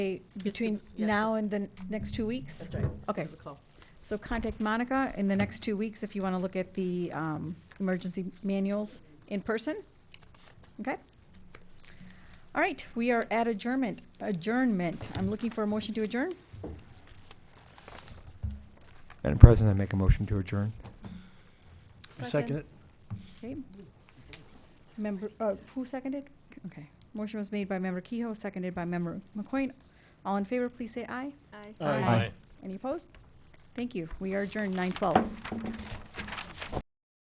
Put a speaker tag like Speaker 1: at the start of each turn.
Speaker 1: Between
Speaker 2: yeah,
Speaker 1: now
Speaker 2: this-
Speaker 1: and the n- next two weeks?
Speaker 2: That's right.
Speaker 1: Okay.
Speaker 2: Give us a call.
Speaker 1: So contact Monica in the next two weeks if you want to look at the um, emergency manuals in person. Okay? All right, we are at adjournment, adjournment. I'm looking for a motion to adjourn.
Speaker 3: Madam President, I make a motion to adjourn.
Speaker 4: I second it.
Speaker 1: Okay. Member, uh, who seconded? Okay. Motion was made by Member Kehoe, seconded by Member McQuain. All in favor, please say aye.
Speaker 4: Aye.
Speaker 1: Any opposed? Thank you. We are adjourned nine twelve.